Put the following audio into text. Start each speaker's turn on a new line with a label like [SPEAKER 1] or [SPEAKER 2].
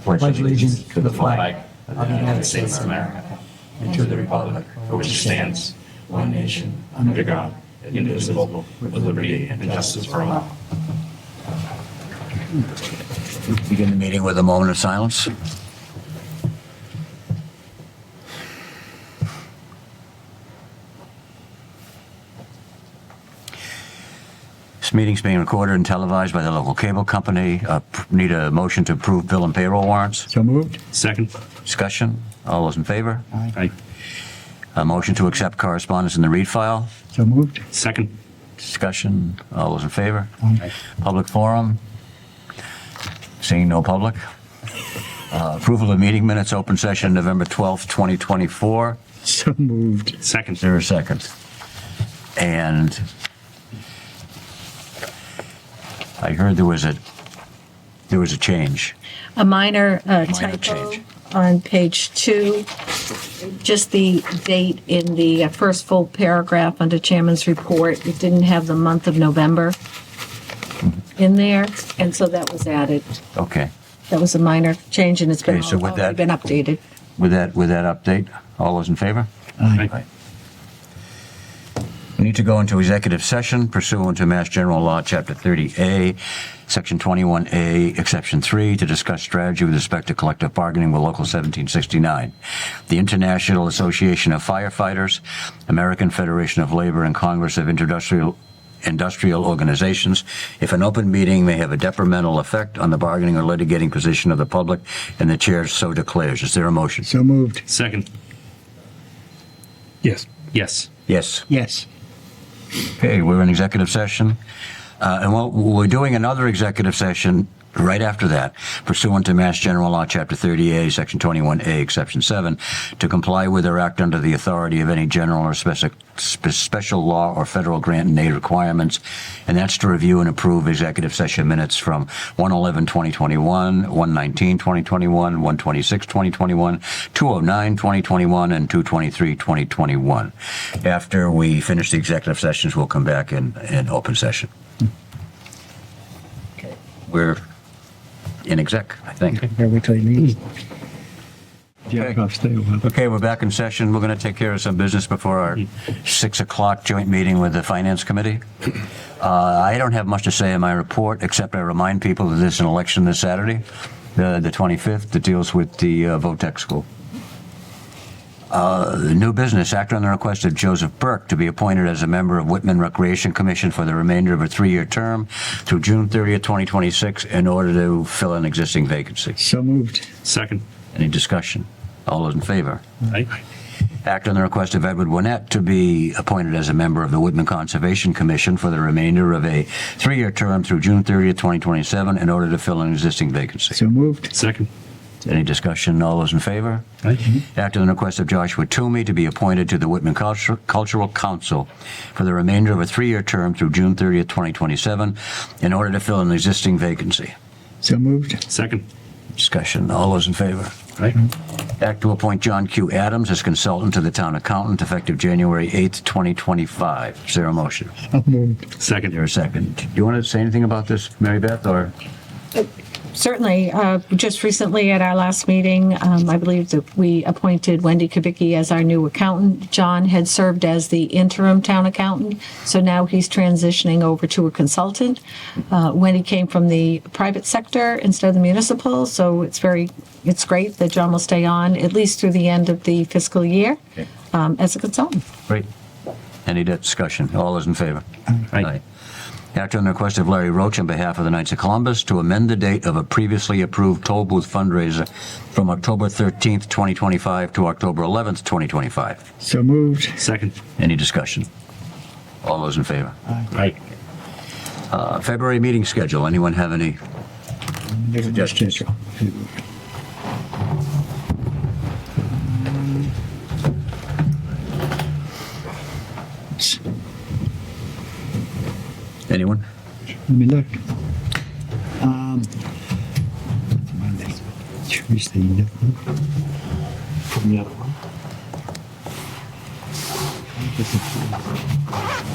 [SPEAKER 1] pledge allegiance to the flag
[SPEAKER 2] of the United States of America and to the republic for which it stands, one nation, under God, indivisible, with liberty and justice for all.
[SPEAKER 3] Begin the meeting with a moment of silence. This meeting's being recorded and televised by the local cable company. Uh, p- Need a motion to approve bill and payroll warrants?
[SPEAKER 1] So moved?
[SPEAKER 2] Second.
[SPEAKER 3] Discussion? All those in favor?
[SPEAKER 2] Aye.
[SPEAKER 3] A motion to accept correspondence in the read file?
[SPEAKER 1] So moved?
[SPEAKER 2] Second.
[SPEAKER 3] Discussion? All those in favor? Public forum? Seeing no public? Uh, Approval of meeting minutes, open session, November 12th, 2024.
[SPEAKER 1] So moved.
[SPEAKER 3] Is
[SPEAKER 2] Second.
[SPEAKER 3] there a second? And I heard there was a, there was a change.
[SPEAKER 4] a minor uh,
[SPEAKER 3] Minor
[SPEAKER 4] typo
[SPEAKER 3] change.
[SPEAKER 4] on page two, just the date in the uh, first full paragraph under chairman's report. It didn't have the month of November
[SPEAKER 3] Mm-hmm.
[SPEAKER 4] in there, and so that was added.
[SPEAKER 3] Okay.
[SPEAKER 4] That was a minor change, and it's been,
[SPEAKER 3] Okay, so with
[SPEAKER 4] already
[SPEAKER 3] that-
[SPEAKER 4] been updated.
[SPEAKER 3] With that, with that update, all those in favor?
[SPEAKER 2] Aye.
[SPEAKER 3] We need to go into executive session pursuant to Mass General Law, Chapter 30A, Section 21A, Exception 3, to discuss strategy with respect to collective bargaining with Local 1769, the International Association of Firefighters, American Federation of Labor, and Congress of Industrial industrial organizations if an open meeting may have a detrimental effect on the bargaining or litigating position of the public and the chair so declares is there a motion
[SPEAKER 1] So moved?
[SPEAKER 2] Second.
[SPEAKER 1] Yes.
[SPEAKER 2] Yes.
[SPEAKER 3] yes
[SPEAKER 1] Yes.
[SPEAKER 3] Okay, we're in executive session. Uh, And what- we're doing another executive session right after that pursuant to Mass General Law, Chapter 30A, Section 21A, Exception 7, to comply with or act under the authority of any general or speci- spe- special law or federal grant and aid requirements. And that's to review and approve executive session minutes from 111-2021, 119-2021, 126-2021, 209-2021, and 223-2021. After we finish the executive sessions, we'll come back in, in open session. We're in exec, I think.
[SPEAKER 1] Here we till you leave. Hmm. Jacob, stay with us.
[SPEAKER 3] Okay, we're back in session. We're going to take care of some business before our 6 o'clock joint meeting with the Finance Committee. Uh, I don't have much to say in my report, except I remind people that there's an election this Saturday, the the 25th, that deals with the uh, VOTEC school. Uh, New business, act on the request of Joseph Burke to be appointed as a member of Whitman Recreation Commission for the remainder of a three-year term through June 30th, 2026, in order to fill an existing vacancy.
[SPEAKER 1] So moved?
[SPEAKER 2] Second.
[SPEAKER 3] Any discussion? All those in favor?
[SPEAKER 2] Aye.
[SPEAKER 3] Act on the request of Edward Winnett to be appointed as a member of the Whitman Conservation Commission for the remainder of a three-year term through June 30th, 2027, in order to fill an existing vacancy.
[SPEAKER 1] So moved?
[SPEAKER 2] Second.
[SPEAKER 3] Any discussion? All those in favor?
[SPEAKER 2] Aye.
[SPEAKER 3] Act on the request of Joshua Toomey to be appointed to the Whitman Cultur- Cultural Council for the remainder of a three-year term through June 30th, 2027, in order to fill an existing vacancy.
[SPEAKER 1] So moved?
[SPEAKER 2] Second.
[SPEAKER 3] Discussion. All those in favor?
[SPEAKER 2] Aye.
[SPEAKER 3] Act to appoint John Q. Adams as consultant to the town accountant effective January 8th, 2025. Is there a motion? Is
[SPEAKER 1] So moved?
[SPEAKER 2] Second.
[SPEAKER 3] there a second? Do you want to say anything about this, Mary Beth, or?
[SPEAKER 4] Certainly, uh, just recently at our last meeting, um, I believe that we appointed Wendy Kubicki as our new accountant. John had served as the interim town accountant, so now he's transitioning over to a consultant. Uh, Wendy came from the private sector instead of the municipal, so it's very, it's great that John will stay on at least through the end of the fiscal year
[SPEAKER 3] Okay.
[SPEAKER 4] um, as a consultant.
[SPEAKER 3] Great. Any discussion? All those in favor?
[SPEAKER 2] Aye.
[SPEAKER 3] Act on the request of Larry Roach on behalf of the Knights of Columbus to amend the date of a previously approved toll booth fundraiser from October 13th, 2025 to October 11th, 2025.
[SPEAKER 1] So moved?
[SPEAKER 2] Second.
[SPEAKER 3] Any discussion? All those in favor?
[SPEAKER 2] Aye.
[SPEAKER 3] Uh, February meeting schedule. Anyone have any Suggestions. Anyone?
[SPEAKER 1] Let me look. Um, Monday, Tuesday, no. From the other one.